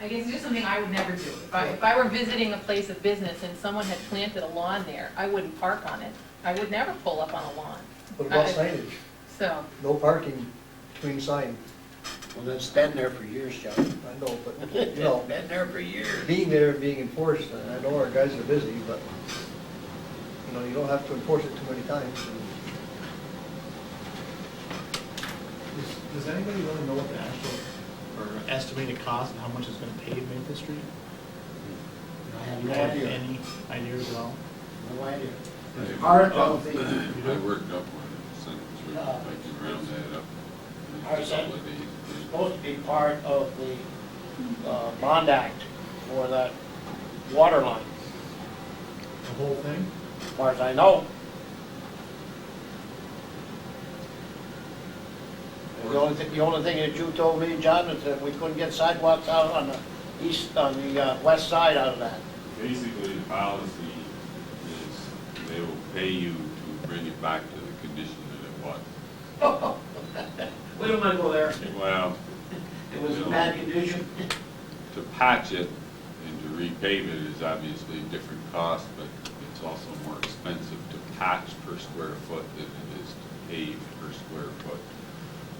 I guess it's just something I would never do. If I, if I were visiting a place of business and someone had planted a lawn there, I wouldn't park on it. I would never pull up on a lawn, What about I- signage? so. No parking between sign, Well, that's been there for years, John. I know, but, you know, It's been there for years. being there and being enforced, and I know our guys are busy, but, you know, you don't have to enforce it too many times. Does- Does anybody really know what the actual, or estimated cost and how much it's gonna pave Maple Street? I have You no have idea, any ideas at all? no idea. I- Our, of the, I worked up one, and sent it through, Uh, I can round that up. our son- it's supposed to be part of the uh, bond act for that water line, The whole thing? as far as I know. And The only thing, the only thing that you told me, John, is that we couldn't get sidewalks out on the east, on the uh, west side out of that. Basically, the policy is they will pay you to bring it back to the condition that it We don't wanna go there. was. Well, It was in bad condition. to patch it and to repave it is obviously a different cost, but it's also more expensive to patch per square foot than it is to pave per square foot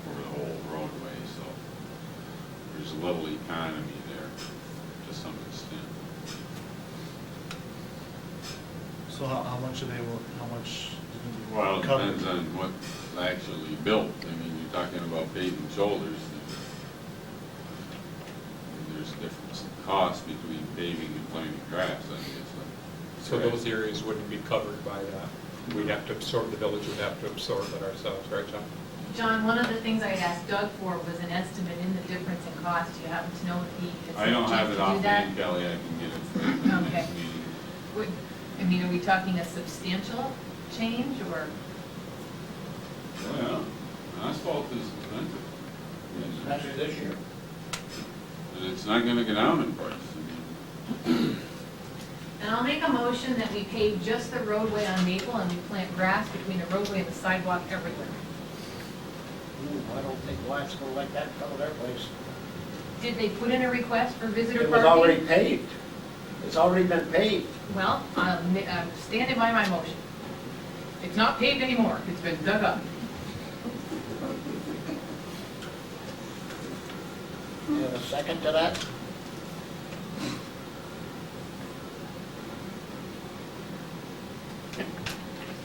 over the whole roadway, so there's a little economy there to some extent. So how, how much are they, will- how much is gonna Well, it be covered? depends on what's actually built. I mean, you're talking about paving shoulders. and There's difference in cost between paving and planting grass, I guess. So those areas wouldn't be covered by that? We'd have to absorb, the village would have to absorb it ourselves, right, John? John, one of the things I had asked Doug for was an estimate in the difference in cost. Do you happen to know if he had I don't have suggested it do that? offhand, Kelly, I can get it for you in the Okay. next meeting. Would, I mean, are we talking a substantial change or? Well, asphalt is expensive. Especially this year. And it's not gonna go down in price. I mean, And I'll make a motion that we pave just the roadway on Maple and we plant grass between the roadway and the sidewalk everywhere. Ooh, I don't think Black's gonna let that cover their place. Did they put in a request for visitor It parking? was already paved. It's already been paved. Well, I'm I'm standing by my motion. It's not paved anymore, it's been dug up. You have a second to that?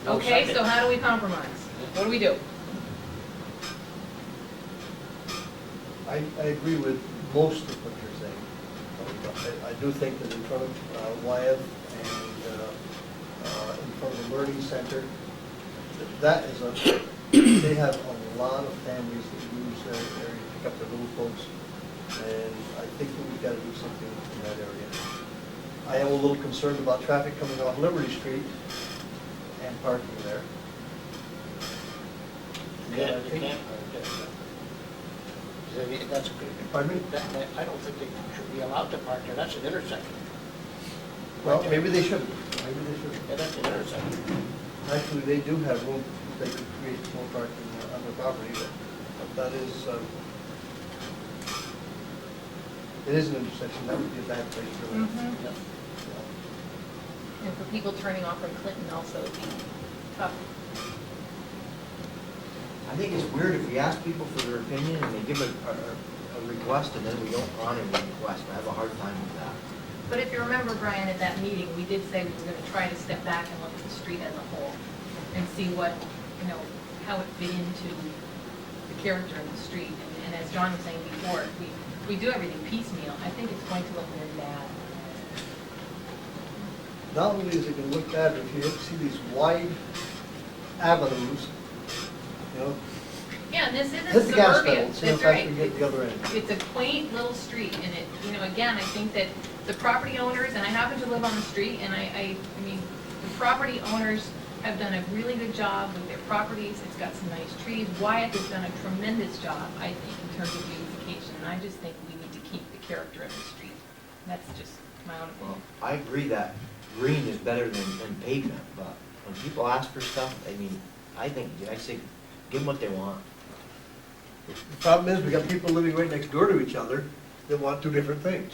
No Okay, so second. how do we compromise? What do we do? I, I agree with most of what you're saying. but I- I do think that in front of uh, Wyeth and uh, uh, in front of the Learning Center, that that is a, they have a lot of families that use that area to pick up their little folks. And I think that we've got to do something in that area. I am a little concerned about traffic coming off Liberty Street and parking there. Yeah, you can't. Is it- That's, Pardon me? that, that- I don't think they should be allowed to park there. That's an intersection. Well, maybe they shouldn't, maybe they shouldn't. Yeah, that's an intersection. Actually, they do have room, they could create more parking on the property, but but that is, um, it is an intersection, that would be a bad place for them. Mhm. Yeah. And for people turning off from Clinton also, it'd be tough. I think it's weird if we ask people for their opinion and they give a, a, a request and then we don't honor the request. I have a hard time with that. But if you remember, Brian, at that meeting, we did say we were gonna try to step back and look at the street as a whole and see what, you know, how it fit into the character of the street. And- And as John was saying before, if we, if we do everything piecemeal, I think it's going to look very bad. Not only is it gonna look bad, but if you see these wide avenues, you know, Yeah, and this hit isn't the gas suburbia, pedal, see how that's fast right. we get to the other end. It's a quaint little street, and it, you know, again, I think that the property owners, and I happen to live on the street, and I, I, I mean, the property owners have done a really good job with their properties, it's got some nice trees, Wyatt has done a tremendous job, I think, in terms of beautification, and I just think we need to keep the character of the street. That's just my own Well, opinion. I agree that green is better than, than pavement, but when people ask for stuff, I mean, I think, I say, give them what they want. The problem is, we got people living right next door to each other that want two different things.